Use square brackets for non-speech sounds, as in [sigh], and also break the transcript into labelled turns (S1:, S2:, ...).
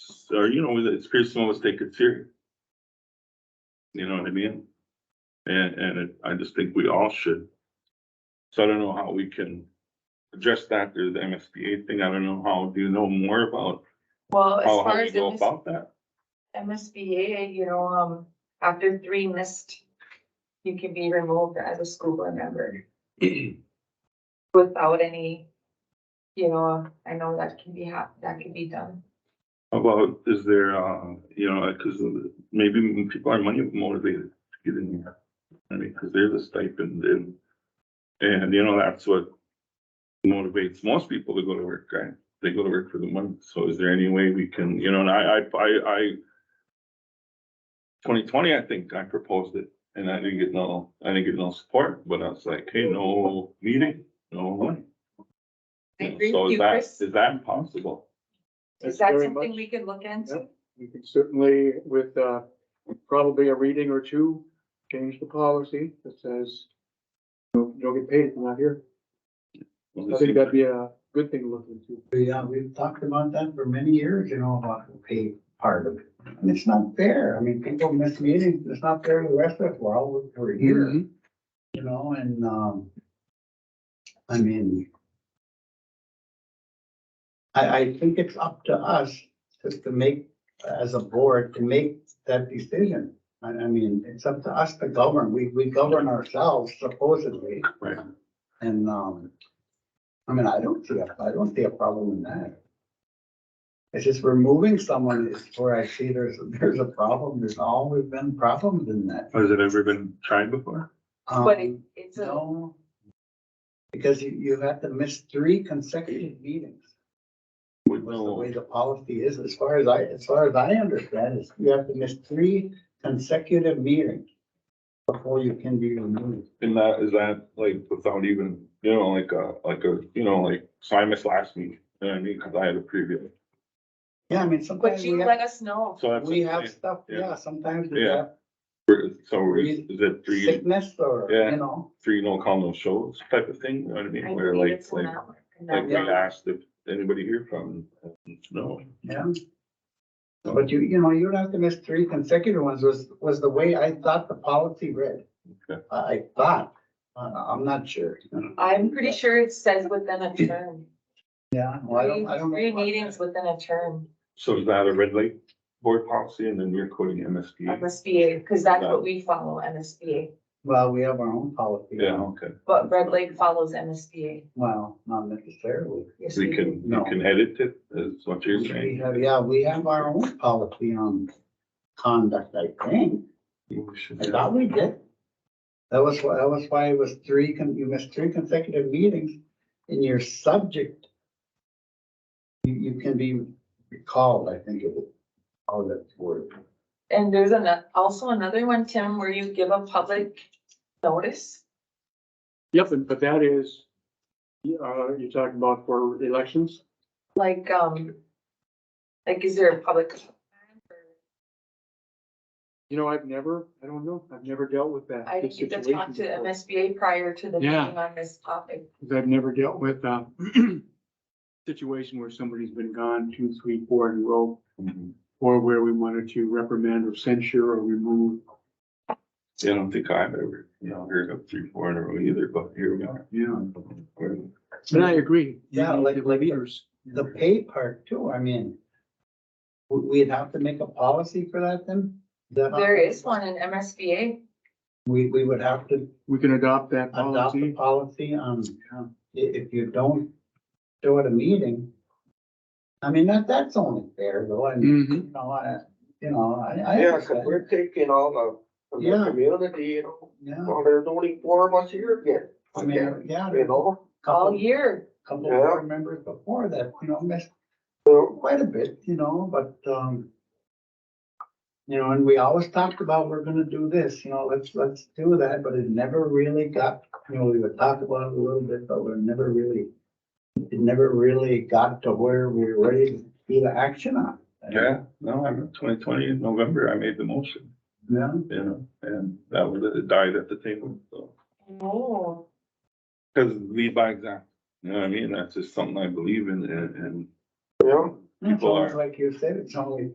S1: it's, or you know, it's personal let's take it serious. You know what I mean? And, and it- I just think we all should. So I don't know how we can address that through the MSBA thing. I don't know how, do you know more about
S2: Well, as
S1: Oh, how, how
S2: far
S1: you
S2: as
S1: go
S2: MS-
S1: about that?
S2: MSBA, you know, um, after three missed, you can be removed as a school board member without any, you know, I know that can be hap, that can be done.
S1: How About, is there, uh, you know, cause maybe people are money motivated to get in here. I mean, cause there's a stipend and, and you know, that's what motivates most people to go to work, right? They go to work for the money. So is there any way we can, you know, and I, I, I, I twenty twenty, I think I proposed it and I didn't get no, I didn't get no support, but I was like, hey, no meeting, no money.
S2: I agree
S1: So
S2: with
S1: is
S2: you,
S1: that,
S2: Chris.
S1: is that possible?
S2: Is
S3: That's
S2: that
S3: very
S2: something
S3: much-
S2: we could look into?
S3: We could certainly, with, uh, probably a reading or two, change the policy that says, you don't get paid if you're not here. I think that'd be a good thing to look into.
S4: Yeah, we've talked about that for many years, you know, about the pay part of it. And it's not fair. I mean, people miss meetings. It's not fair to the rest of us. We're all, we're here, you know, and, um, I mean, I, I think it's up to us just to make, as a board, to make that decision. I, I mean, it's up to us to govern. We, we govern ourselves supposedly.
S1: Right.
S4: And, um, I mean, I don't see a, I don't see a problem in that. It's just removing someone is where I see there's, there's a problem. There's always been problems in that.
S1: Has it ever been tried before?
S2: But it,
S4: Um,
S2: it's a,
S4: No. Because you, you have to miss three consecutive meetings.
S1: Would-
S4: was the way the policy is, as far as I, as far as I understand, is you have to miss three consecutive meetings before you can be removed.
S1: And that, is that like without even, you know, like a, like a, you know, like, so I missed last meeting, you know what I mean, cause I had a preview.
S4: Yeah, I mean,
S2: but
S4: sometimes
S2: you
S4: we
S2: let
S4: have,
S2: us know.
S1: So that's.
S4: we have stuff, yeah, sometimes we
S1: Yeah.
S4: have
S1: So is is it three,
S4: sickness or,
S1: Yeah.
S4: you know,
S1: three no call, no shows type of thing, you know what I
S2: I
S1: mean, where
S2: believe
S1: like,
S2: it's an
S1: like,
S2: hour. and
S1: like we
S2: that's-
S1: asked if anybody here from, and no.
S4: yeah. But you, you know, you don't have to miss three consecutive ones was, was the way I thought the policy read.
S1: Okay.
S4: I, I thought, I, I'm not sure.
S2: I'm pretty sure it says within a term.
S4: Yeah, well, I don't, I don't. know
S2: Three
S4: about
S2: meetings
S4: that.
S2: within a term,
S1: So is that a red light board policy and then you're quoting MSBA?
S2: MSBA, because that's what we follow, MSBA.
S4: Well, we have our own policy.
S1: Yeah, okay,
S2: But Red Lake follows MSBA.
S4: Well, not necessarily.
S2: Yes,
S1: we
S2: we do.
S1: can, you
S4: No.
S1: can edit it, is what you're
S4: We
S1: saying.
S4: have, yeah, we have our own policy on conduct, I think.
S1: We should-
S4: I thought we did. That was why, that was why it was three, con- you missed three consecutive meetings and you're subject. You, you can be recalled, I think it was, all that word.
S2: And there's an, also another one, Tim, where you give a public notice.
S3: Yep, and- but that is, uh, you're talking about for elections?
S2: Like, um, like, is there a public?
S3: You know, I've never, I don't know, I've never dealt with that.
S2: I
S3: this
S2: didn't get to
S3: situation
S2: talk to
S3: before.
S2: MSBA prior to the meeting
S3: Yeah.
S2: on this topic.
S3: Cause I've never dealt with a [clears throat] situation where somebody's been gone two, three, four in a row.
S1: Mhm.
S3: or where we wanted to reprimand or censure or remove.
S1: Yeah, I don't think I've ever, you know, heard of three, four in a row either, but here we are.
S3: Yeah,
S1: We're-
S3: but I agree.
S4: Yeah, like-
S3: The
S4: like-
S3: leaders.
S4: The pay part too, I mean, we, we'd have to make a policy for that then? That-
S2: There is one in MSBA.
S4: We, we would have to
S3: We can adopt that
S4: adopt a
S3: policy.
S4: policy on,
S3: Yeah.
S4: i- if you don't show at a meeting. I mean, that, that's only fair though, I mean,
S3: Mhm.
S4: you know, I, you know, I, I.
S5: Yeah, because
S4: understand.
S5: we're taking all the, from
S4: Yeah.
S5: the community, you know,
S4: Yeah,
S5: well, there's only four of us here again.
S4: I mean, yeah,
S5: You know,
S2: All
S4: couple,
S2: year,
S4: couple board members before that, you know, missed
S5: so,
S4: quite a bit, you know, but, um. You know, and we always talked about, we're gonna do this, you know, let's, let's do that, but it never really got, you know, we would talk about it a little bit, but we're never really. It never really got to where we were ready to be the action on.
S1: Yeah, no, I'm twenty twenty in November, I made the motion,
S4: Yeah,
S1: you know, and that was, it died at the table, so.
S2: no,
S1: Cause lead by example, you know what I mean? That's just something I believe in and, and
S5: you know,
S4: It's
S1: people are.
S4: almost like you said, it's only